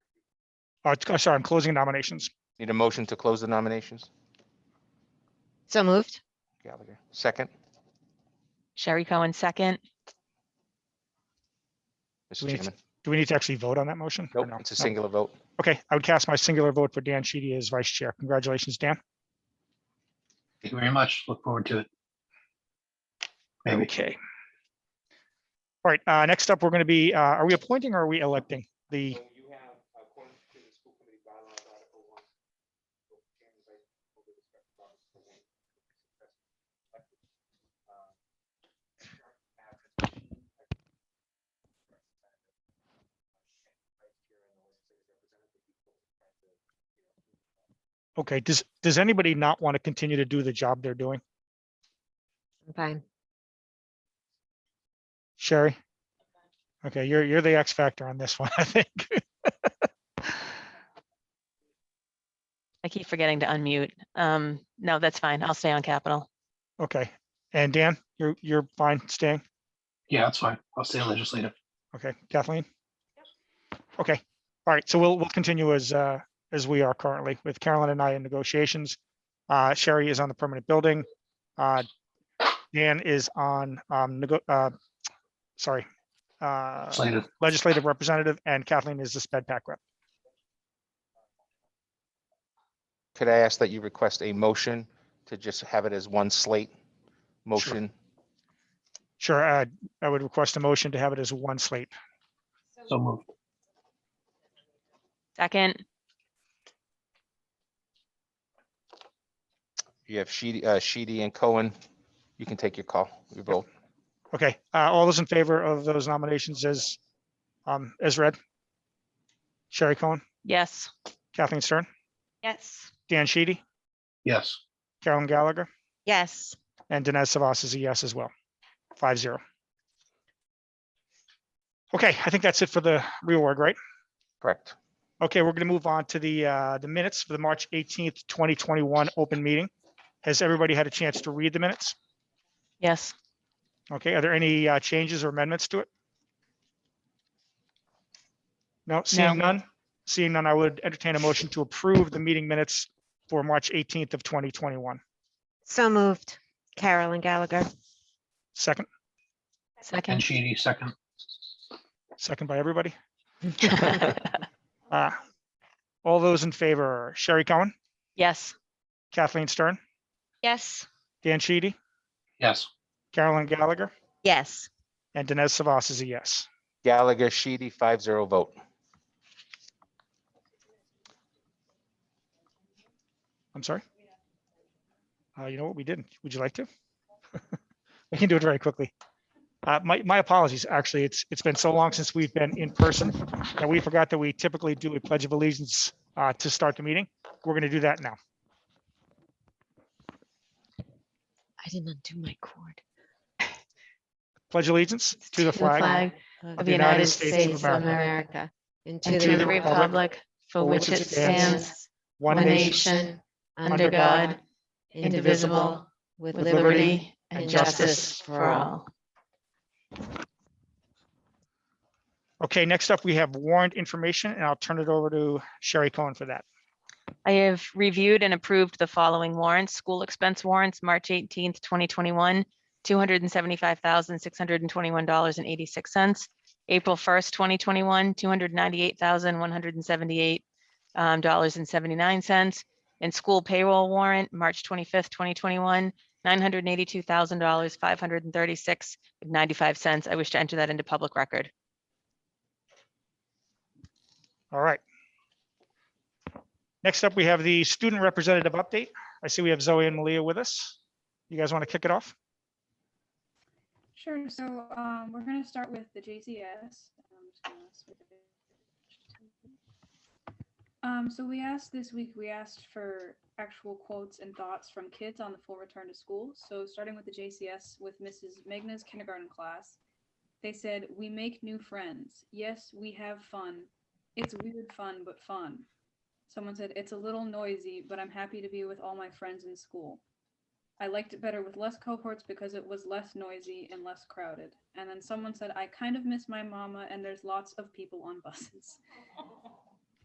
Uh, t- uh, sorry, I'm closing nominations. Need a motion to close the nominations? So moved. Gallagher, second. Sherry Cohen, second. Mr. Please. Chairman, Do we need to actually vote on that motion? or nope, no? it's a No. singular vote. Okay, I would cast my singular vote for Dan Sheedy as vice chair. Congratulations, Dan. Thank you very much. Look forward to it. Maybe. Okay. All right, uh, next up, we're going to be, uh, are we appointing or are we electing the? Okay, does, does anybody not want to continue to do the job they're doing? I'm Fine. Sherry? Okay, you're, you're the X factor on this one, I think. I keep forgetting to unmute. Um, no, that's fine. I'll stay on Capitol. Okay, and Dan, you're, you're fine staying? Yeah, that's fine. I'll stay in legislative. Okay, Kathleen? Okay, all right, so we'll, we'll continue as, uh, as we are currently with Carolyn and I in negotiations. Uh, Sherry is on the permanent building. Uh, Dan is on, um, nego, uh, sorry, uh, Legislative. legislative representative, and Kathleen is the sped pack rep. Could I ask that you request a motion to just have it as one slate? Motion, Sure, uh, I would request a motion to have it as one slate. So moved. Second, you have Sheedy, uh, Sheedy and Cohen. You can take your call, your vote. Okay, uh, all those in favor of those nominations as, um, as read? Sherry Cohen, yes. Kathleen Stern, Yes. Dan Sheedy, Yes. Carolyn Gallagher, Yes. and Dinesh Savas is a yes as well. Five zero. Okay, I think that's it for the reorg, right? Correct. Okay, we're gonna move on to the, uh, the minutes for the March eighteenth, twenty twenty-one open meeting. Has everybody had a chance to read the minutes? Yes. Okay, are there any uh, changes or amendments to it? No, seeing none, seeing none, I would entertain a motion to approve the meeting minutes for March 18th of 2021. So moved. Carolyn Gallagher. Second, And Second. Sheedy, second. second by everybody. Uh, All those in favor, Sherry Cohen, Yes. Kathleen Stern, Yes. Dan Sheedy, Yes. Carolyn Gallagher, Yes. and Dinesh Savas is a yes. Gallagher, Sheedy, five zero vote. I'm sorry. Uh, you know what? We didn't. Would you like to? We can do it very quickly. Uh, my, my apologies. Actually, it's, it's been so long since we've been in person that we forgot that we typically do a pledge of allegiance, uh, to start the meeting. We're going to do that now. I didn't undo my cord. Pledge allegiance to the flag Of the United States of America. And And to the republic for which it stands, one one nation. nation, under under God, indivisible, with with liberty and justice for all. Okay, next up, we have warrant information and I'll turn it over to Sherry Cohen for that. I have reviewed and approved the following warrants, school expense warrants, March eighteenth, twenty twenty-one, two hundred and seventy-five thousand, six hundred and twenty-one dollars and eighty-six cents. April first, twenty twenty-one, two hundred ninety-eight thousand, one hundred and seventy-eight um, dollars and seventy-nine cents. And school payroll warrant, March twenty-fifth, twenty twenty-one, nine hundred eighty-two thousand dollars, five hundred and thirty-six, ninety-five cents. I wish to enter that into public record. All right. Next up, we have the student representative update. I see we have Zoe and Malia with us. You guys want to kick it off? Sure, so um, we're gonna start with the JCS. I'm just gonna switch it. Um, so we asked this week, we asked for actual quotes and thoughts from kids on the full return to school. So starting with the JCS with Mrs. Migna's kindergarten class. They said, we make new friends. Yes, we have fun. It's weird fun, but fun. Someone said, it's a little noisy, but I'm happy to be with all my friends in school. I liked it better with less cohorts because it was less noisy and less crowded. And then someone said, I kind of miss my mama and there's lots of people on buses.